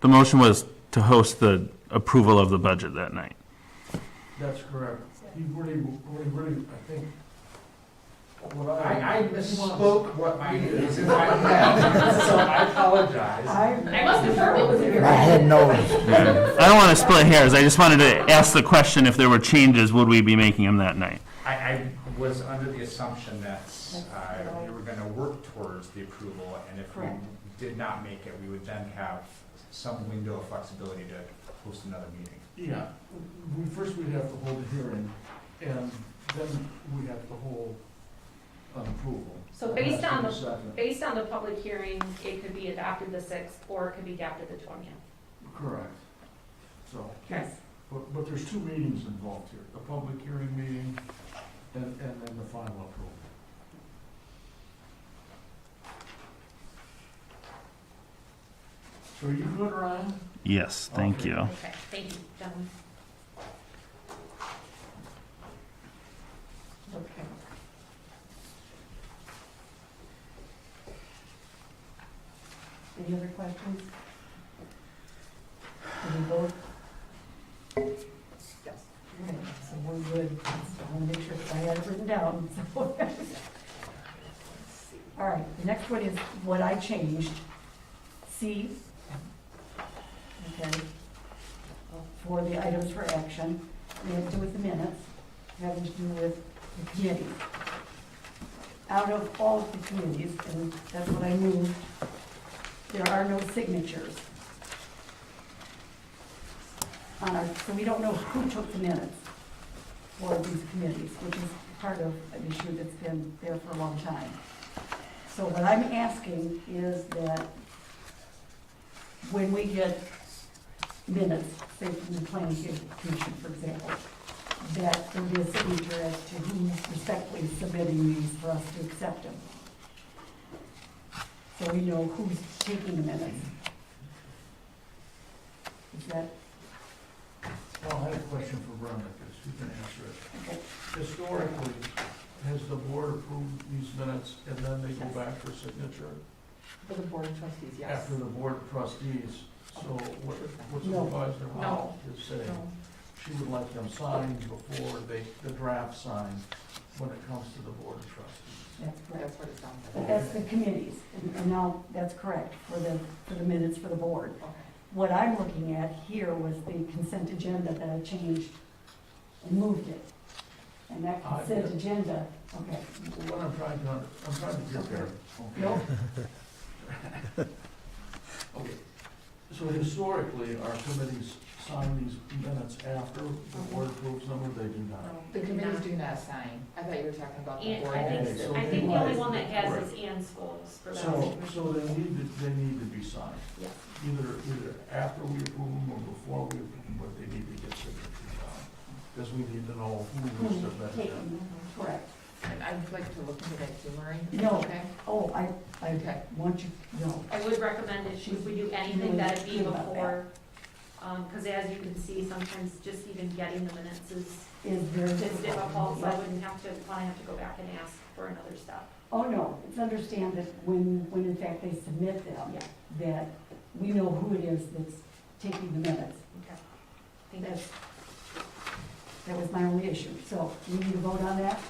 The motion was to host the approval of the budget that night. That's correct. He really, really, really, I think, what I, I, I misspoke what my, is in my head, so I apologize. I must have heard what was in your I head. had noticed. I don't want to split hairs, I just wanted to ask the question, if there were changes, would we be making them that night? I, I was under the assumption that, uh, we were gonna work towards the approval, and if we Correct. did not make it, we would then have some window of flexibility to host another meeting. yeah, we, first we'd have to hold a hearing, and then we have to hold an approval. So based on the- That's second. Based on the public hearing, it could be adopted the sixth, or it could be adopted the twentieth. Correct. So, but, but there's two meetings involved here, a public hearing meeting and, and then the final approval. So are you good, Ryan? Yes, thank you. Okay, thank you, gentlemen. Okay. Any other questions? Can we vote? Yes. Okay, so we're good. I want to make sure that I had it written down. so. All right, the next one is what I changed. C. Okay. Uh, For the items for action, we have to do with the minutes having to do with the committee. Out of all of the committees, and that's what I moved, there are no signatures. On our, so we don't know who took the minutes for these committees, which is part of an issue that's been there for a long time. So what I'm asking is that when we get minutes, say from the planning commission, for example, that there be a signature as to who's respectfully submitting these for us to accept them. So we know who's taking the minutes. Is that, Well, I have a question for Brenda, because she can answer it. okay, Historically, has the board approved these minutes and then they go back for signature? for the board of trustees, After the board of trustees, so what, what's the No. advisor Howell is saying? No. She would like them signed before they, the draft signed, when it comes to the board of trustees. That's correct. what it sounds But that's the committees, and- and now that's correct for the, for the minutes for the board. What I'm looking at here was the consent agenda that I changed and moved it. And that I- consent agenda, okay, What I'm trying to, under- I'm trying to get there. okay? no, Okay, so historically, our committees sign these minutes after Uh-huh. the board approves them, or they do Um, not? The committees do not sign. I thought you were talking about the And board. I Okay, so think, I they think the might- only one that has is Ann Scholes for that. So, so they need, to- they need to be signed. Yes. Either, either after we approve them or before we approve them, but they need to get signatures on. Because we need to know who Hmm. was who's submitted. Mm-hmm. taking, correct. And I'd like to look into that too, Marie. No. Okay? Oh, I, I Okay. want you, no, I would recommend if we- if we do anything that it be before, um, because as you can see, sometimes just even getting the minutes is, is there? is difficult, so I wouldn't have to, probably have to go back and ask for another step. Oh, no, it's understand that when, when in fact they submit them, Yeah, that we know who it is that's taking the minutes. okay. I think That's, that's, that was my only issue, so we need to vote on that?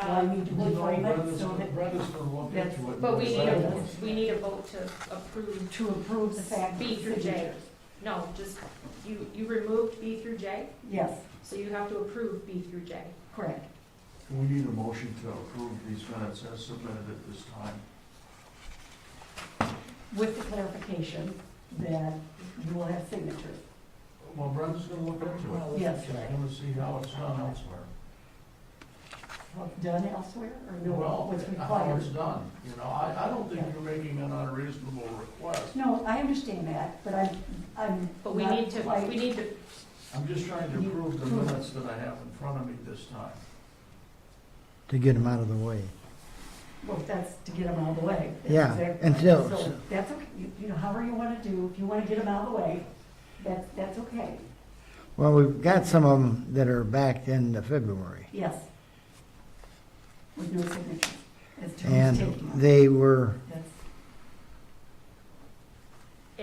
Do I um, need to vote for it, Brenda's, so that, Brenda's gonna look into it. but we need a, Yes. we need a vote to approve, to approve the fact. B through J. signatures. no, just, you, you removed B through J, Yes, so you have to approve B through J. correct. We need a motion to approve these minutes as submitted at this time. With the clarification that you will have signatures. Well, Brenda's gonna look into it. Yes. She's gonna see how it's done elsewhere. Well, Done elsewhere or no, Well, what's how required? it's done, you know, I, I don't think you're making an unreasonable request. No, I understand that, but I'm, I'm. But we not need to, quite- we need to, I'm just trying to approve the minutes that I have in front of me this time. To get them out of the way. Well, that's to get them out of the way. That's Yeah, exactly and right. so- So that's okay, you, you know, however you want to do, if you want to get them out of the way, that, that's okay, Well, we've got some of them that are backed into February. yes. With no signature as to who's And taking them. they were That's